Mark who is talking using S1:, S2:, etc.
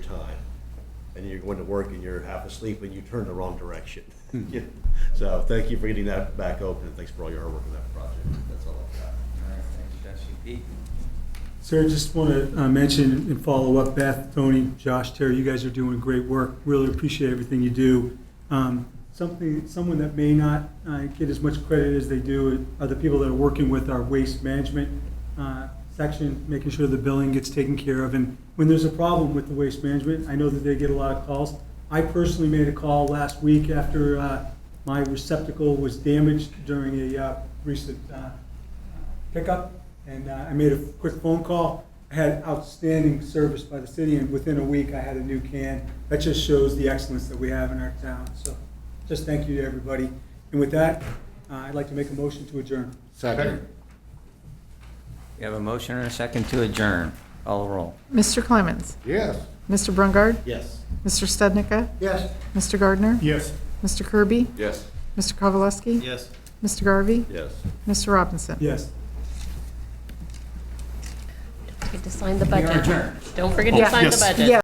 S1: and you're going to work and you're half asleep and you turn the wrong direction. Yeah. So thank you for getting that back open, and thanks for all your hard work on that project. That's all I've got.
S2: Sir, just want to mention and follow up, Beth, Tony, Josh, Terry, you guys are doing great work. Really appreciate everything you do. Um, Something, someone that may not uh, get as much credit as they do are the people that are working with our waste management uh, section, making sure the billing gets taken care of. And when there's a problem with the waste management, I know that they get a lot of calls. I personally made a call last week after uh, my receptacle was damaged during a uh, recent uh, pickup, and uh, I made a quick phone call. I had outstanding service by the city, and within a week, I had a new can. That just shows the excellence that we have in our town, so just thank you to everybody. And with that, uh, I'd like to make a motion to adjourn.
S3: Second.
S4: You have a motion and a second to adjourn. Call the roll.
S5: Mr. Clemens?
S3: Yes.
S5: Mr. Brungard?
S1: Yes.
S5: Mr. Stednica?
S3: Yes.
S5: Mr. Gardner?
S2: Yes.
S5: Mr. Kirby?
S3: Yes.
S5: Mr. Kowalewski?
S1: Yes.
S5: Mr. Garvey?
S1: Yes.
S5: Mr. Robinson?
S2: Yes.
S6: Forget to sign the
S4: We are
S6: budget.
S4: adjourned.
S6: Don't forget to sign the
S5: Yes.
S6: budget.